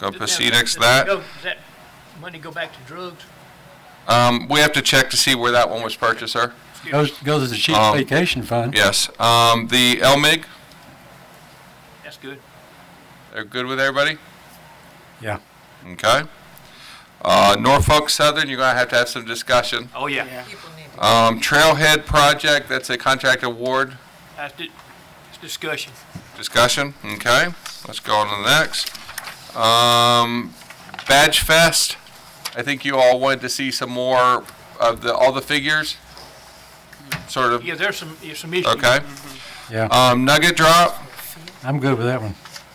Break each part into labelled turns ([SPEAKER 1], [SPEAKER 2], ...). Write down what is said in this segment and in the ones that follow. [SPEAKER 1] go
[SPEAKER 2] Does that-
[SPEAKER 1] Pacedex
[SPEAKER 2] does
[SPEAKER 1] that.
[SPEAKER 2] go- Does that money go back to drugs?
[SPEAKER 1] Um, we have to check to see where that one was purchased, sir.
[SPEAKER 3] Goes, goes to the cheap
[SPEAKER 1] Um,
[SPEAKER 3] vacation fund.
[SPEAKER 1] Yes. Um, the LMIG,
[SPEAKER 2] That's good.
[SPEAKER 1] they're good with everybody?
[SPEAKER 3] Yeah.
[SPEAKER 1] Okay. Uh, Norfolk Southern, you're gonna have to have some discussion.
[SPEAKER 2] Oh, yeah.
[SPEAKER 4] People need to,
[SPEAKER 1] Um, Trailhead Project, that's a contract award
[SPEAKER 2] That's di- it's discussion.
[SPEAKER 1] discussion. Okay, let's go on to the next. Um, Badge Fest, I think you all wanted to see some more of the, all the figures, sort of,
[SPEAKER 2] Yeah, there's some, there's some issues.
[SPEAKER 1] okay?
[SPEAKER 3] Yeah,
[SPEAKER 1] Um, Nugget Drop,
[SPEAKER 3] I'm good with that one.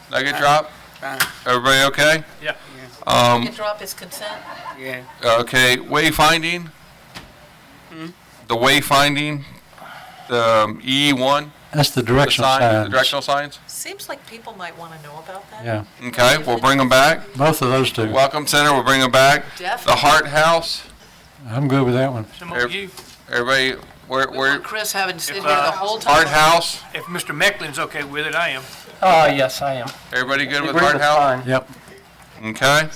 [SPEAKER 1] Nugget Drop,
[SPEAKER 5] Fine,
[SPEAKER 1] everybody okay?
[SPEAKER 2] Yeah.
[SPEAKER 1] Um,
[SPEAKER 4] you drop his consent,
[SPEAKER 5] yeah.
[SPEAKER 1] Okay, wayfinding?
[SPEAKER 4] Hmm?
[SPEAKER 1] The wayfinding, the E one,
[SPEAKER 3] That's the
[SPEAKER 1] the
[SPEAKER 3] directional
[SPEAKER 1] sign, the
[SPEAKER 3] signs.
[SPEAKER 1] directional signs?
[SPEAKER 4] seems like people might want to know about that.
[SPEAKER 3] Yeah,
[SPEAKER 1] Okay, we'll bring them back.
[SPEAKER 3] both of those two.
[SPEAKER 1] Welcome Center, we'll bring them back. The
[SPEAKER 4] Definitely.
[SPEAKER 1] Hart House,
[SPEAKER 3] I'm good with that one.
[SPEAKER 2] Some of you,
[SPEAKER 1] everybody, where,
[SPEAKER 4] We want
[SPEAKER 1] where,
[SPEAKER 4] Chris having to sit
[SPEAKER 2] If,
[SPEAKER 4] here the
[SPEAKER 2] uh,
[SPEAKER 4] whole time.
[SPEAKER 1] Hart House,
[SPEAKER 2] if Mr. Mecklin's okay with it, I am.
[SPEAKER 6] Ah, yes, I am.
[SPEAKER 1] everybody good with
[SPEAKER 6] Agree
[SPEAKER 1] Hart
[SPEAKER 6] with
[SPEAKER 1] House?
[SPEAKER 6] mine.
[SPEAKER 3] Yep,
[SPEAKER 1] Okay.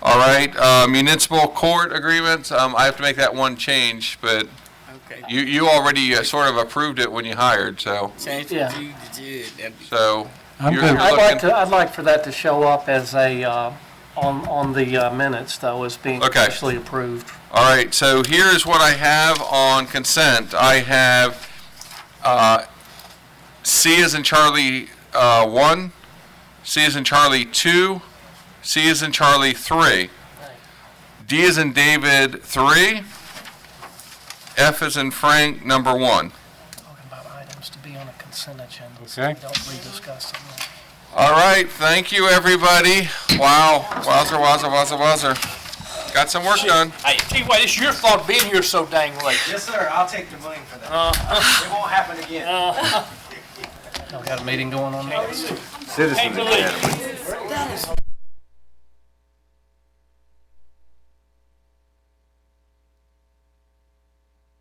[SPEAKER 1] All right, uh, municipal court agreements, um, I have to make that one change, but
[SPEAKER 5] Okay.
[SPEAKER 1] you, you already uh, sort of approved it when you hired, so,
[SPEAKER 5] Change
[SPEAKER 6] Yeah.
[SPEAKER 5] the G to J. That'd be
[SPEAKER 1] so.
[SPEAKER 3] I'm
[SPEAKER 1] you're
[SPEAKER 3] good.
[SPEAKER 1] looking-
[SPEAKER 6] I'd like to, I'd like for that to show up as a, uh, on, on the uh, minutes though, as being
[SPEAKER 1] Okay.
[SPEAKER 6] officially approved.
[SPEAKER 1] All right, so here's what I have on consent. I have uh, C is in Charlie uh, 1, C is in Charlie 2, C is in Charlie 3, D is in David 3, F is in Frank, number 1.
[SPEAKER 6] Talking about items to be on a consent agenda,
[SPEAKER 3] so we Okay.
[SPEAKER 6] don't rediscuss them.
[SPEAKER 1] All right, thank you, everybody. Wow, wowzer, wowzer, wowzer, wowzer. Got some work done.
[SPEAKER 2] Hey, gee, wait, it's your fault being here so dang late. Uh,
[SPEAKER 7] Yes, sir, I'll take the blame for that. It won't happen again. Oh,
[SPEAKER 6] I've got a meeting going on now.
[SPEAKER 2] Can't believe it.